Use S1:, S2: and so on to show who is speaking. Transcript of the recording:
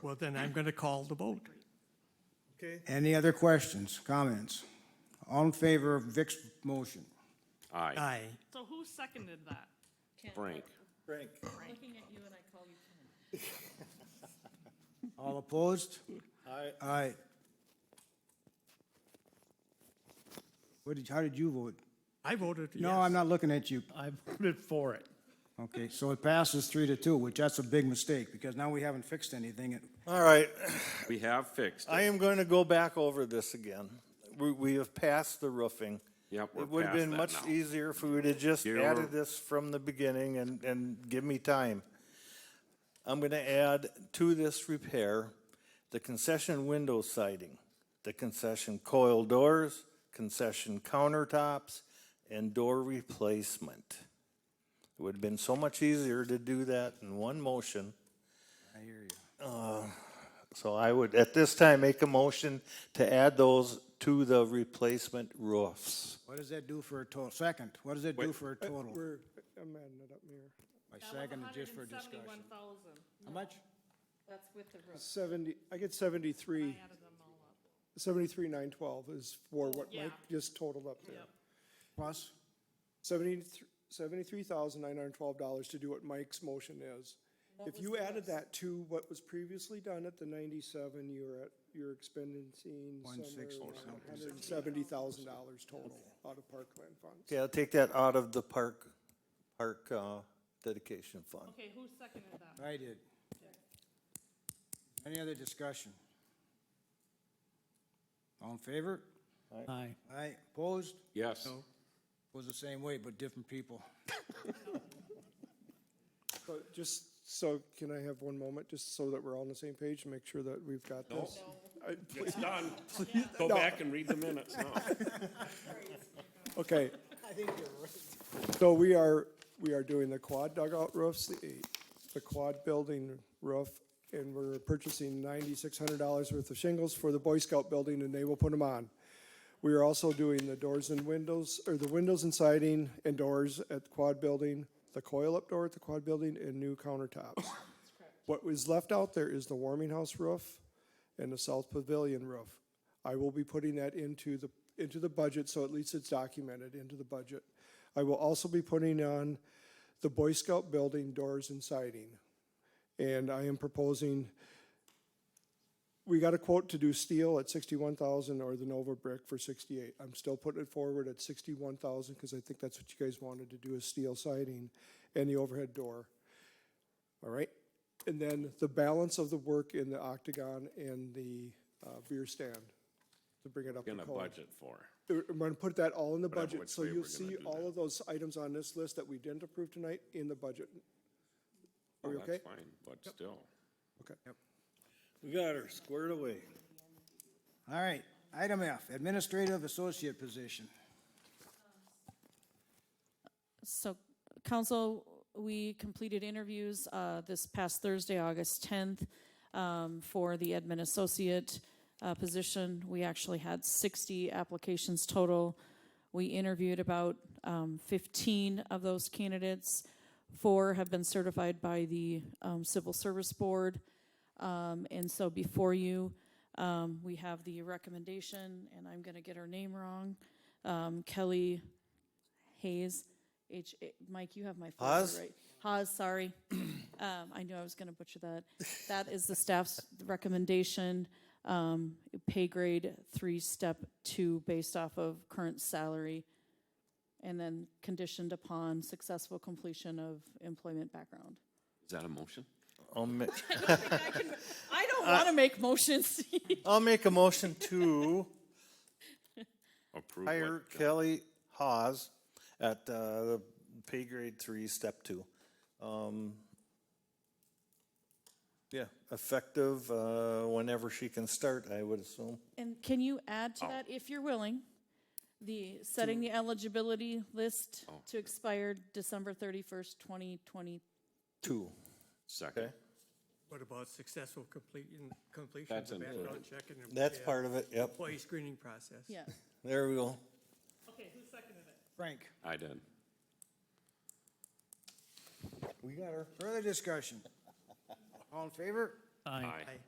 S1: Well, then I'm going to call the vote.
S2: Okay,
S3: Any other questions, comments? All in favor of Vic's motion?
S4: Uh,
S5: Aye.
S1: Aye.
S6: So who seconded that?
S5: Frank.
S2: Frank.
S7: Looking at you and I call you Ken.
S3: All opposed?
S2: Aye.
S3: Aye. What did, how did you vote?
S1: I voted yes.
S3: No, I'm not looking at you.
S8: I voted for it.
S3: Okay, so it passes three to two, which that's a big mistake, because now we haven't fixed anything. It-
S2: All right,
S5: We have fixed
S2: I
S5: it.
S2: am going to go back over this again. We, we have passed the roofing.
S5: Yep, we're
S2: It would have
S5: past
S2: been
S5: that
S2: much
S5: now.
S2: easier if we would have just
S5: You're-
S2: added this from the beginning and, and give me time. I'm going to add to this repair, the concession window siding, the concession coil doors, concession countertops, and door replacement. It would have been so much easier to do that in one motion. So I would, at this time, make a motion to add those to the replacement roofs.
S3: What does that do for a total? Second, what does that do for a total?
S4: We're, I'm adding it up, Mayor.
S3: My second is just for discussion.
S6: Seventy-one thousand.
S3: How much?
S7: That's with the roof.
S4: Seventy, I get seventy-three,
S6: Added them all up.
S4: seventy-three nine twelve is for what
S6: Yeah.
S4: Mike just totaled up there.
S6: Yep.
S3: Plus?
S4: Seventy-three, seventy-three thousand nine hundred and twelve dollars to do what Mike's motion is. If you added that to what was previously done at the ninety-seven, you're at, you're expending somewhere
S3: 160
S4: around hundred and seventy thousand dollars total out of parkland funds.
S2: Okay, I'll take that out of the park, park uh, dedication fund.
S6: Okay, who seconded that?
S3: I did. Any other discussion? All in favor?
S8: Aye.
S3: Aye. Opposed?
S5: Yes.
S3: Was the same way, but different people.
S4: But just, so can I have one moment, just so that we're all on the same page and make sure that we've got this? I-
S9: It's done. Go back and read the minutes now.
S4: Okay. So we are, we are doing the quad dugout roofs, the, the quad building roof, and we're purchasing ninety-six hundred dollars worth of shingles for the Boy Scout building, and they will put them on. We are also doing the doors and windows, or the windows and siding and doors at the quad building, the coil-up door at the quad building, and new countertops. What was left out there is the warming house roof and the south pavilion roof. I will be putting that into the, into the budget, so at least it's documented into the budget. I will also be putting on the Boy Scout building doors and siding. And I am proposing, we got a quote to do steel at sixty-one thousand or the Nova brick for sixty-eight. I'm still putting it forward at sixty-one thousand, because I think that's what you guys wanted to do is steel siding and the overhead door. All right, and then the balance of the work in the octagon and the uh, beer stand, to bring it up to
S5: Gonna
S4: code.
S5: budget for.
S4: I'm gonna put that all in the
S5: Whatever,
S4: budget,
S5: which
S4: so
S5: way
S4: you'll
S5: we're gonna
S4: see
S5: do
S4: all
S5: that.
S4: of those items on this list that we didn't approve tonight in the budget. Are we
S5: Well,
S4: okay?
S5: That's fine, but still.
S4: Okay.
S2: We got her squared away.
S3: All right, item F, administrative associate position.
S7: So, council, we completed interviews uh, this past Thursday, August 10th, um, for the admin associate uh, position. We actually had 60 applications total. We interviewed about um, 15 of those candidates. Four have been certified by the um, Civil Service Board. Um, And so before you, um, we have the recommendation, and I'm going to get her name wrong, um, Kelly Hayes, H, Mike, you have my folder,
S2: Haas?
S7: right? Haas, sorry. Um, I knew I was gonna butcher that. That is the staff's recommendation, um, pay grade three, step two, based off of current salary, and then conditioned upon successful completion of employment background.
S5: Is that a motion?
S2: I'll ma-
S7: I don't wanna make motions.
S2: I'll make a motion to
S5: Approve what-
S2: hire Kelly Hawes at uh, the pay grade three, step two. Um, Yeah, effective uh, whenever she can start, I would assume.
S7: And can you add to that, if you're willing, the, setting the eligibility list to expire December thirty-first, twenty twenty
S2: Two,
S5: Second.
S2: okay?
S1: What about successful completion, completion of
S5: That's
S1: the background
S5: included.
S1: check and
S2: That's
S1: employee-
S2: part of it, yep.
S1: employee screening process?
S7: Yeah,
S2: There we go.
S6: Okay, who seconded it?
S3: Frank,
S5: I did.
S2: We got her.
S3: further discussion? All in favor?
S8: Aye.
S5: Aye.
S1: Aye.